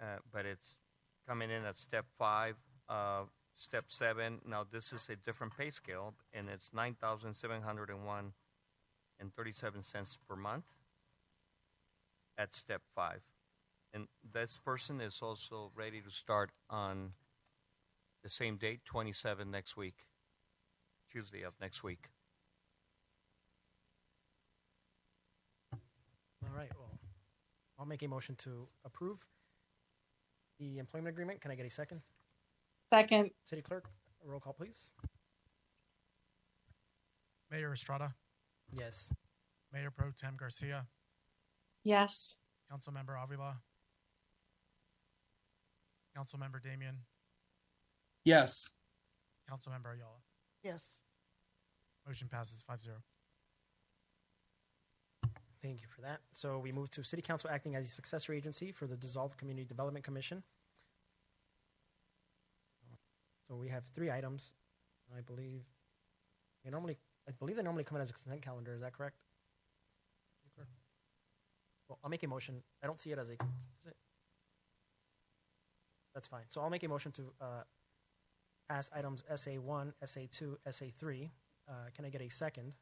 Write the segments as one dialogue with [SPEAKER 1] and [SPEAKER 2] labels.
[SPEAKER 1] uh, but it's coming in at step five, uh, step seven. Now, this is a different pay scale, and it's nine thousand seven hundred and one and thirty-seven cents per month at step five. And this person is also ready to start on the same date, twenty-seven next week, Tuesday of next week.
[SPEAKER 2] All right, well, I'll make a motion to approve the employment agreement. Can I get a second?
[SPEAKER 3] Second,
[SPEAKER 2] City Clerk, roll call, please.
[SPEAKER 4] Mayor Estrada,
[SPEAKER 2] Yes.
[SPEAKER 4] Mayor Pro Tem Garcia,
[SPEAKER 3] yes.
[SPEAKER 4] Councilmember Avila, Councilmember Damian,
[SPEAKER 5] Yes.
[SPEAKER 4] Councilmember Ayala.
[SPEAKER 6] yes.
[SPEAKER 4] Motion passes five zero.
[SPEAKER 2] Thank you for that. So we move to City Council acting as a successor agency for the dissolved Community Development Commission. So we have three items, I believe. They normally, I believe they normally come in as a consent calendar. Is that correct? Well, I'll make a motion. I don't see it as a. is it? That's fine. So I'll make a motion to uh, pass items SA one, SA two, SA three. Uh, can I get a second?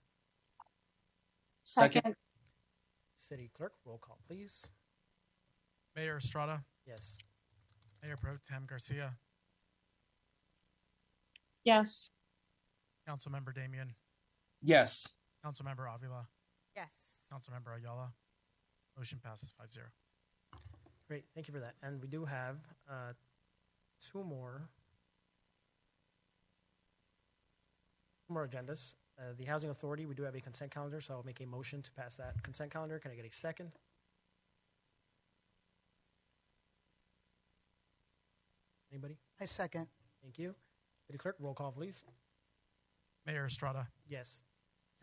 [SPEAKER 5] Second.
[SPEAKER 2] City Clerk, roll call, please.
[SPEAKER 4] Mayor Estrada,
[SPEAKER 2] Yes.
[SPEAKER 4] Mayor Pro Tem Garcia,
[SPEAKER 3] Yes.
[SPEAKER 4] Councilmember Damian,
[SPEAKER 5] Yes.
[SPEAKER 4] Councilmember Avila,
[SPEAKER 7] Yes.
[SPEAKER 4] Councilmember Ayala. Motion passes five zero.
[SPEAKER 2] Great, thank you for that. And we do have uh, two more two more agendas. Uh, the housing authority, we do have a consent calendar, so I'll make a motion to pass that consent calendar. Can I get a second? Anybody?
[SPEAKER 6] I second.
[SPEAKER 2] Thank you. City clerk, roll call, please.
[SPEAKER 4] Mayor Estrada,
[SPEAKER 2] Yes.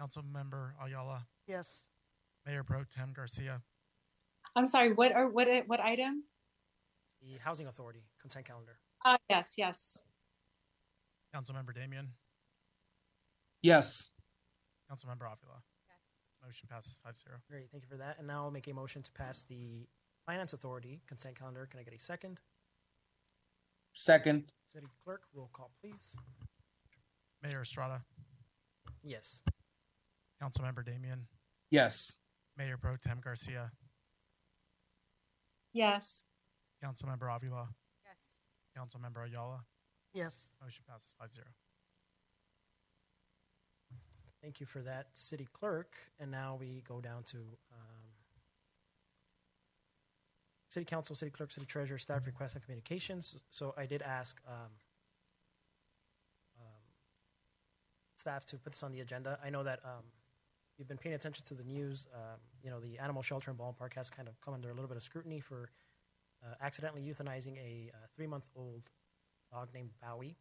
[SPEAKER 4] Councilmember Ayala,
[SPEAKER 6] Yes.
[SPEAKER 4] Mayor Pro Tem Garcia,
[SPEAKER 3] I'm sorry, what are, what, i- what item?
[SPEAKER 2] The housing authority consent calendar.
[SPEAKER 3] Uh, yes, yes.
[SPEAKER 4] Councilmember Damian,
[SPEAKER 5] Yes.
[SPEAKER 4] Councilmember Avila.
[SPEAKER 7] Yes.
[SPEAKER 4] Motion passes five zero.
[SPEAKER 2] Great, thank you for that. And now I'll make a motion to pass the finance authority consent calendar. Can I get a second?
[SPEAKER 5] Second.
[SPEAKER 2] City clerk, roll call, please.
[SPEAKER 4] Mayor Estrada,
[SPEAKER 2] Yes.
[SPEAKER 4] Councilmember Damian,
[SPEAKER 5] Yes.
[SPEAKER 4] Mayor Pro Tem Garcia,
[SPEAKER 3] Yes.
[SPEAKER 4] Councilmember Avila,
[SPEAKER 7] Yes.
[SPEAKER 4] Councilmember Ayala.
[SPEAKER 6] Yes.
[SPEAKER 4] Motion passes five zero.
[SPEAKER 2] Thank you for that, city clerk. And now we go down to um, city council, city clerk, city treasurer, staff requests and communications. So I did ask um, um, staff to put this on the agenda. I know that um, you've been paying attention to the news. Um, you know, the animal shelter in Ballpark has kind of come under a little bit of scrutiny for uh, accidentally euthanizing a uh, three month old dog named Bowie.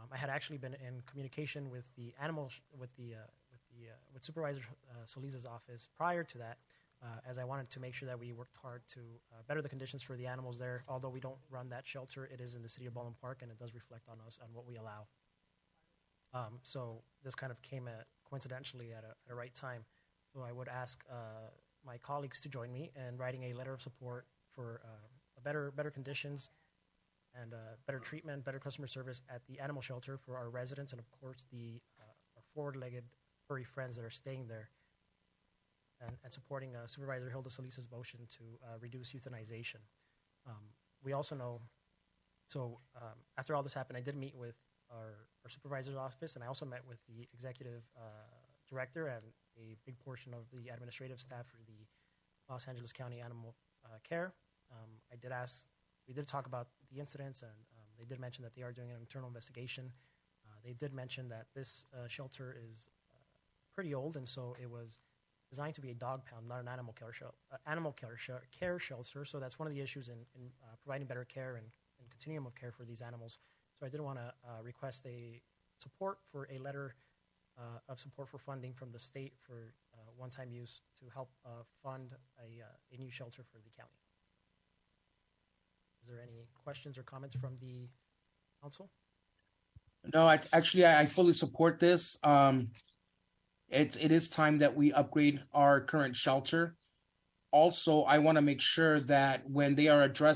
[SPEAKER 2] Um, I had actually been in communication with the animal sh- with the uh, with the uh, with Supervisor uh, Solis's office prior to that, uh, as I wanted to make sure that we worked hard to uh, better the conditions for the animals there. Although we don't run that shelter, it is in the city of Baldwin Park, and it does reflect on us on what we allow. Um, so this kind of came at, coincidentally at a, at a right time. So I would ask uh, my colleagues to join me in writing a letter of support for uh, better better conditions and uh, better treatment, better customer service at the animal shelter for our residents and, of course, the uh, our forward-legged furry friends that are staying there. And, and supporting uh, Supervisor Hilda Solis's motion to uh, reduce euthanization. Um, we also know, so um, after all this happened, I did meet with our, our supervisor's office, and I also met with the executive uh, director and a big portion of the administrative staff for the Los Angeles County Animal uh, Care. Um, I did ask, we did talk about the incidents, and um, they did mention that they are doing an internal investigation. Uh, they did mention that this uh, shelter is uh, pretty old, and so it was designed to be a dog pound, not an animal care shel- uh, animal care, shel- care shelter. So that's one of the issues in, in uh, providing better care and, and continuum of care for these animals. So I did want to uh, request a support for a letter uh, of support for funding from the state for uh, one-time use to help uh, fund a, uh, a new shelter for the county. Is there any questions or comments from the council?
[SPEAKER 5] No, I actually I I fully support this. Um it's it is time that we upgrade our current shelter. Also, I want to make sure that when they are addressing